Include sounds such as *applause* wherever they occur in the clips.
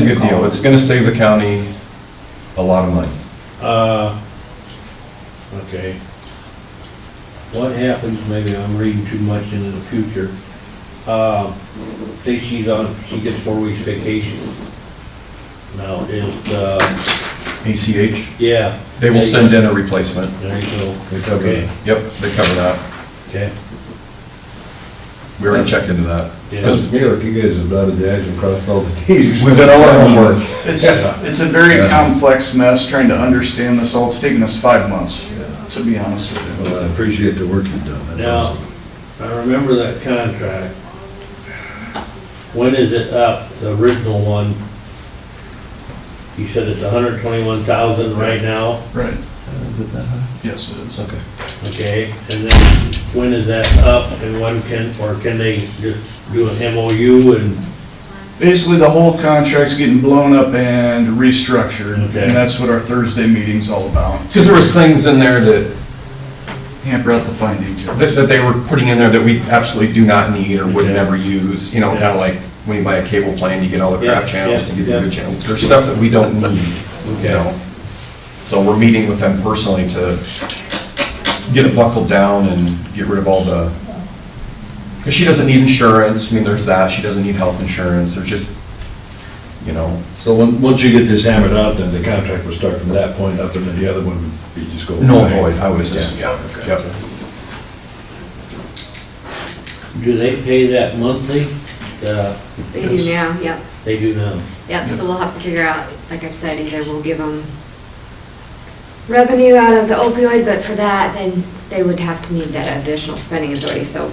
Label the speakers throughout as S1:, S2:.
S1: good deal. It's gonna save the county a lot of money.
S2: Uh, okay. What happens, maybe I'm reading too much into the future. Uh, say she's on, she gets four weeks vacation. Now, is, uh,
S1: ACH,
S2: yeah.
S1: they will send in a replacement.
S2: There you go.
S1: Cover-
S2: Okay,
S1: Yep, they cover that.
S2: okay.
S1: We already checked into that.
S2: Yeah.
S3: Mr. Miller, you guys have dotted the i's and crossed all the *laughs* t's.
S1: We've done all our homework.
S4: It's, it's a very complex mess trying to understand this all. It's taken us five months, to be honest with you.
S3: Well, I appreciate the work you've done, that's
S2: Now-
S3: awesome.
S2: I remember that contract. When is it up, the original one? You said it's hundred twenty-one thousand right now?
S4: Right.
S3: Is it that high?
S4: Yes, it is.
S3: Okay.
S2: Okay, and then when is that up and when can, or can they just do an MOU and,
S4: Basically, the whole contract's getting blown up and restructured,
S2: Okay.
S4: and that's what our Thursday meeting's all about.
S1: Because there was things in there that,
S4: Hamper out the findings.
S1: that that they were putting in there that we absolutely do not need or would
S2: Yeah.
S1: never use, you know, kind of like when you buy a cable plan, you get all the crap
S2: Yeah,
S1: channels to
S2: yeah,
S1: get the
S2: yeah.
S1: good channels. There's stuff that we don't need, you
S2: Okay.
S1: know? So we're meeting with them personally to get it buckled down and get rid of all the, because she doesn't need insurance, I mean, there's that, she doesn't need health insurance, there's just, you know,
S3: So when, once you get this hammered out, then the contract will start from that point up, and then the other one would be just go.
S1: no
S3: away.
S1: void, I would assume, yeah,
S3: okay.
S1: yep.
S2: do they pay that monthly? Uh,
S5: They do now, yep,
S2: They do now.
S5: yep, so we'll have to figure out, like I said, either we'll give them revenue out of the opioid, but for that, then they would have to need that additional spending authority, so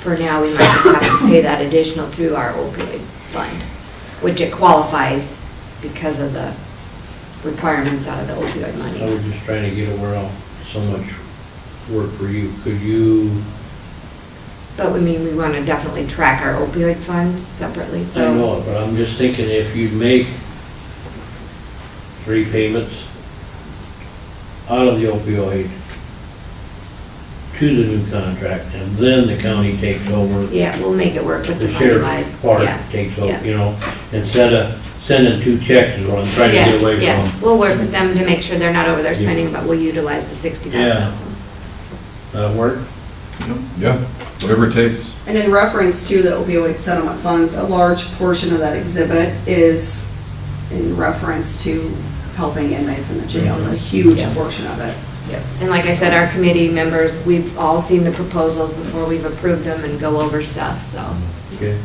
S5: for now, we might just have to pay that additional through our opioid fund, which it qualifies because of the requirements out of the opioid
S2: I
S5: money.
S2: was just trying to get aware of so much work for you. Could you,
S5: But we mean, we want to definitely track our opioid funds separately,
S2: I
S5: so.
S2: know it, but I'm just thinking if you make three payments out of the opioid to the new contract, and then the county takes over
S5: Yeah, we'll make it work with the
S2: the
S5: money wise,
S2: sheriff's part
S5: yeah.
S2: takes
S5: yeah.
S2: over, you know, instead of sending two checks is what I'm trying to
S5: Yeah,
S2: get away
S5: yeah.
S2: from.
S5: We'll work with them to make sure they're not over their
S2: Yeah.
S5: spending, but we'll utilize the sixty-five thousand.
S2: That work?
S1: Yeah, whatever it takes.
S6: And in reference to the opioid settlement funds, a large portion of that exhibit is in reference to helping inmates in the jail, a huge
S5: Mm-hmm. Yeah.
S6: portion of it.
S5: And like I said, our committee members, we've all seen the proposals before we've approved them and go over stuff, so,
S2: Okay.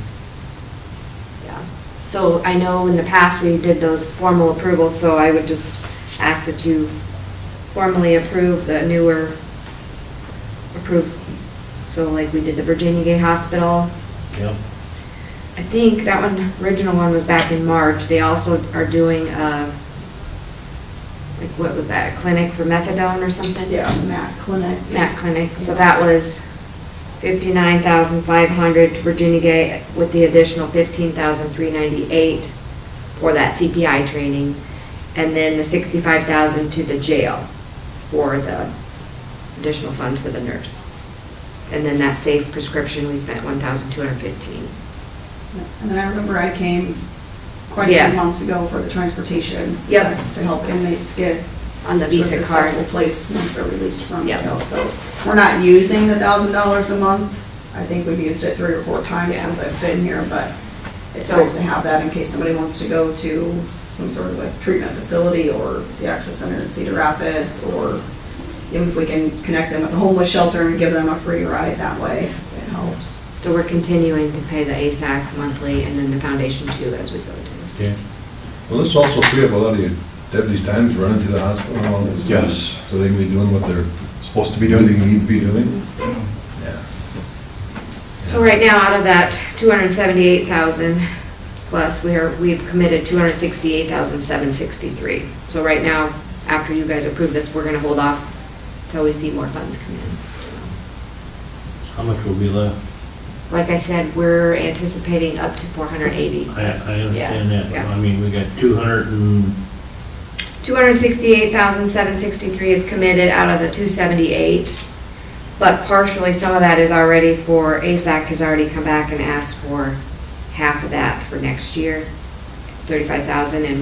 S5: yeah. So I know in the past, we did those formal approvals, so I would just ask that you formally approve the newer approved. So like we did the Virginia Gay Hospital,
S2: Yeah.
S5: I think that one, original one was back in March. They also are doing, uh, like, what was that, a clinic for methadone or something?
S6: Yeah, Matt Clinic.
S5: Matt Clinic. So that was fifty-nine thousand five hundred to Virginia Gay with the additional fifteen thousand three ninety-eight for that CPI training. And then the sixty-five thousand to the jail for the additional funds for the nurse. And then that safe prescription, we spent one thousand two hundred fifteen.
S6: And then I remember I came quite a
S5: Yeah.
S6: few months ago for the transportation.
S5: Yep.
S6: That's to help inmates get
S5: On the
S6: to a
S5: Visa card.
S6: successful place once they're released from
S5: Yep.
S6: jail. So we're not using the thousand dollars a month. I think we've used it three or four times
S5: Yeah.
S6: since I've been here, but it's
S5: So-
S6: nice to have that in case somebody wants to go to some sort of like treatment facility or the access center in Cedar Rapids, or even if we can connect them with the homeless shelter and give them a free ride that way, it helps.
S5: So we're continuing to pay the ASAC monthly and then the foundation too as we go to.
S2: Okay.
S3: Well, this also free up a lot of your deputies' times running to the hospital and all this.
S1: Yes.
S3: So they can be doing what they're,
S1: Supposed to be
S3: be
S1: doing
S3: doing, they need to be doing. Yeah.
S5: So right now, out of that two hundred and seventy-eight thousand plus, we're, we've committed two hundred and sixty-eight thousand seven sixty-three. So right now, after you guys approve this, we're gonna hold off till we see more funds come in. So,
S2: How much will be left?
S5: Like I said, we're anticipating up to four hundred and eighty.
S2: I, I understand
S5: Yeah,
S2: that.
S5: yeah.
S2: I mean, we got two hundred and,
S5: Two hundred sixty-eight thousand, seven sixty-three is committed out of the two seventy-eight, but partially, some of that is already for, ASAC has already come back and asked for half of that for next year. thirty-five thousand, and